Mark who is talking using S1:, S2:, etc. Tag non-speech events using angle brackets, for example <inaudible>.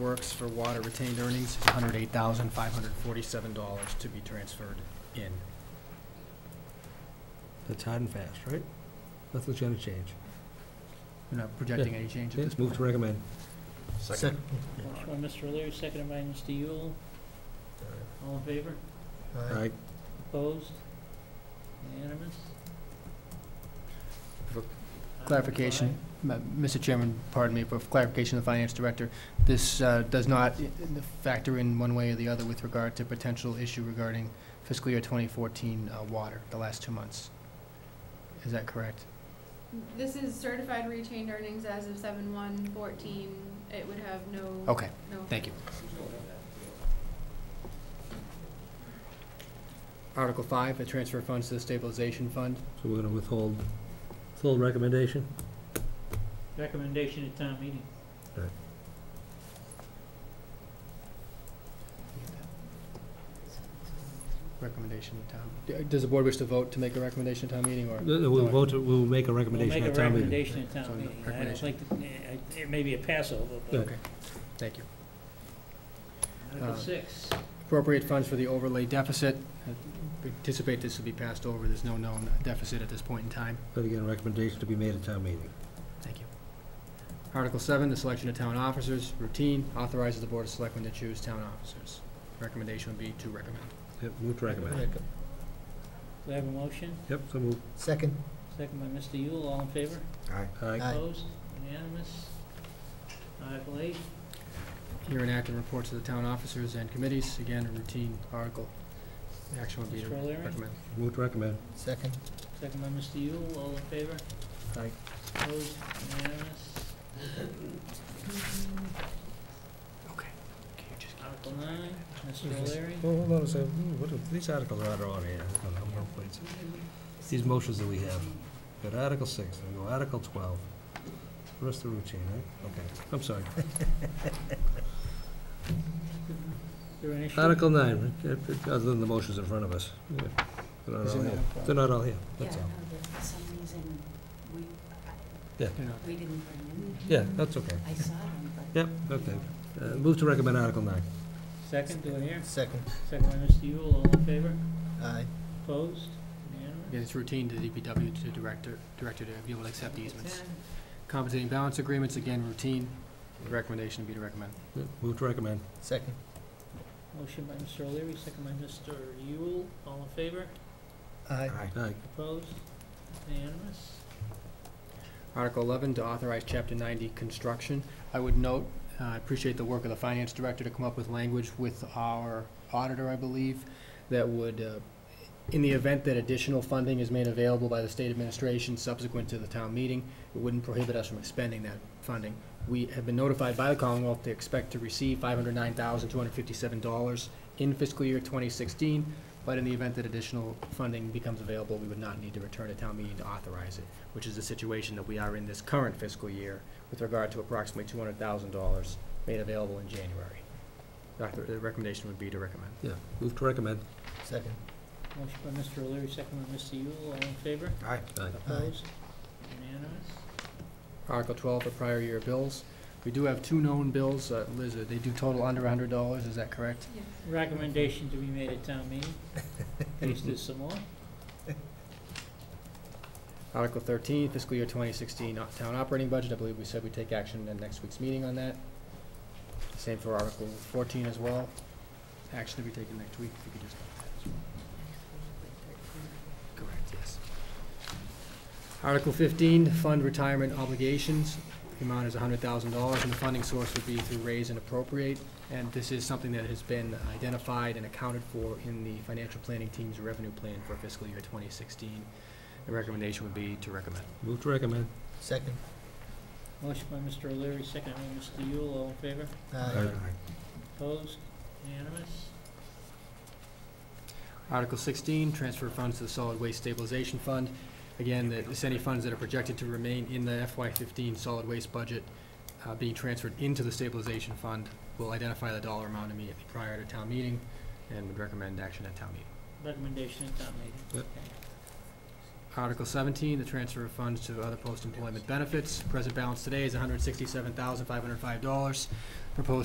S1: Works for water retained earnings is hundred eight thousand, five hundred forty-seven dollars to be transferred in.
S2: That's hard and fast, right? Nothing's gonna change.
S1: You're not projecting any change at this
S2: Yes, move to recommend.
S1: Second.
S3: Motion by Mr. O'Leary, seconded by Mr. Yule. All in favor?
S2: Aye.
S3: Opposed? Unanimous?
S1: For
S3: Item
S1: Clarification, Ma- Mr. Chairman, pardon me, for clarification, of the finance director, this uh, does not i- i- factor in one way or the other with regard to potential issue regarding fiscal year 2014 uh, water, the last two months. Is that correct?
S4: This is certified retained earnings as of seven one fourteen, it would have no.
S2: Oh,
S1: Okay,
S4: no-
S1: thank you. Article 5, the transfer funds to the stabilization fund.
S2: So we're gonna withhold, withhold recommendation?
S3: five, Recommendation at town meeting.
S1: Recommendation to town. D- Does the board wish to vote to make a recommendation to town meeting, or?
S2: Th- We'll vote, to- we'll make a
S3: We'll make
S2: recommendation
S3: a
S2: at town meeting.
S3: recommendation at
S1: So,
S3: town meeting. I don't
S1: recommendation.
S3: like, to- eh, I- it may be a passover, but
S1: Okay, thank you.
S3: Article
S1: Uh,
S3: six.
S1: Appropriate funds for the overlay deficit. I Anticipate this will be passed over, there's no known deficit at this point in time.
S2: But again, recommendation to be made at town meeting.
S1: Thank you. Article seven, the selection of town officers, routine, authorizes the Board of Selectmen to choose town officers. Recommendation would be to recommend.
S2: Yep, move to recommend.
S3: Do I have a motion?
S2: Yep, so move.
S5: Second.
S3: Second by Mr. Yule. All in favor?
S2: Aye.
S3: Opposed? Unanimous? Article eight.
S1: Here and act on reports of the town officers and committees, again, a routine article. Action would be to
S3: Mr. O'Leary?
S1: recommend.
S2: Move to recommend.
S5: Second.
S3: Second by Mr. Yule, all in favor?
S2: Aye.
S3: Opposed, unanimous.
S1: Okay. Can you just-
S3: Article nine, Mr. O'Leary,
S2: Well, hold on a second, Hmm, what are- these articles are on here, Hold on, one point. These motions that we have, got Article six, then we go Article twelve, the rest of the routine, right? Okay, I'm sorry.
S3: is there an issue?
S2: Article nine, uh, uh, other than the motions in front of us. Yeah, They're not
S1: Is
S2: all
S1: in
S2: here,
S1: there.
S2: they're not all here,
S6: Yeah,
S2: that's all.
S6: no, but for some reason, we, I-
S1: you know.
S6: we didn't bring them.
S2: Yeah, that's okay.
S6: I saw them, but.
S2: Yep, okay. Uh, Move to recommend Article nine.
S3: Second, do I hear?
S5: Second.
S3: Second by Mr. Yule, all in favor?
S5: Aye.
S3: Opposed, unanimous?
S1: Yeah, it's routine to DPW to director, director to be able to accept easements. Compensating balance agreements, again, routine. Recommendation would be to recommend.
S2: Yep, Move to recommend.
S5: Second.
S3: Motion by Mr. O'Leary, second by Mr. Yule, all in favor?
S5: Aye.
S2: Aye.
S3: Opposed, unanimous?
S1: Article 11, to authorize Chapter 90 construction. I would note, uh, I appreciate the work of the finance director to come up with language with our auditor, I believe, that would, uh, in the event that additional funding is made available by the state administration subsequent to the town meeting, it wouldn't prohibit us from expending that funding. We have been notified by the Commonwealth to expect to receive $509,257 in fiscal year 2016, but in the event that additional funding becomes available, we would not need to return to town meeting to authorize it which is the situation that we are in this current fiscal year with regard to approximately two hundred thousand dollars made available in January. Doctor, the recommendation would be to recommend.
S2: Yeah, move to recommend.
S5: Second.
S3: Motion by Mr. O'Leary, second by Mr. Yule, all in favor?
S2: Aye.
S3: Opposed, unanimous?
S1: Article twelve, the prior year bills. We do have two known bills, uh, Liz, uh, they do total under hundred dollars, is that correct?
S4: Yes.
S3: Recommendation to be made at town
S5: <laughs>
S3: meeting, please do some more.
S1: Article thirteen, fiscal year twenty sixteen town operating budget, I believe we said we'd take action in next week's meeting on that. Same for Article fourteen as well. Action to be taken next week, if you could just. Correct, yes. Article fifteen, fund retirement obligations. The amount is hundred thousand dollars, and the funding source would be through raise and appropriate. And this is something that has been identified and accounted for in the financial planning team's revenue plan for fiscal year twenty sixteen. The recommendation would be to recommend.
S2: Move to recommend.
S5: Second.
S3: Motion by Mr. O'Leary, second by Mr. Yule, all in favor?
S5: Aye.
S3: Opposed? Unanimous?
S1: Article sixteen, transfer funds to the solid waste stabilization fund. Again, that it's any funds that are projected to remain in the FY fifteen solid waste budget uh, being transferred into the stabilization fund. We'll identify the dollar amount immediately prior to town meeting and would recommend action at town meeting.
S3: Recommendation at town meeting.
S2: Yep.
S1: Article seventeen, the transfer of funds to other post-employment benefits. Present balance today is hundred sixty-seven thousand, five hundred five dollars. Proposed